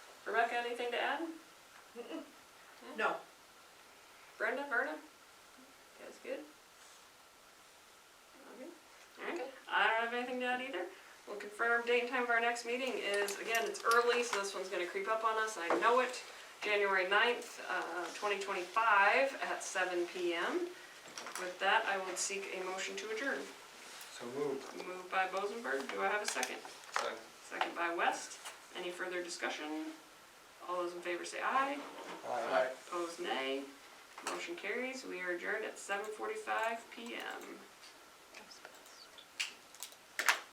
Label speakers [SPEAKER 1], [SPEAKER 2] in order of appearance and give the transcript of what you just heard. [SPEAKER 1] Rebecca, anything to add?
[SPEAKER 2] No,
[SPEAKER 1] Brenda, Verna? Guys good? Okay. Alright, I don't have anything to add either. We'll confirm date and time of our next meeting is, again, it's early, so this one's gonna creep up on us, I know it. January 9th, uh, twenty twenty-five at seven P M. With that, I will seek a motion to adjourn.
[SPEAKER 3] So moved.
[SPEAKER 1] Moved by Bozenberg, do I have a second?
[SPEAKER 3] Second.
[SPEAKER 1] Second by West. Any further discussion? All those in favor say aye.
[SPEAKER 3] Aye.
[SPEAKER 1] Opposed, nay. Motion carries. We are adjourned at seven forty-five PM.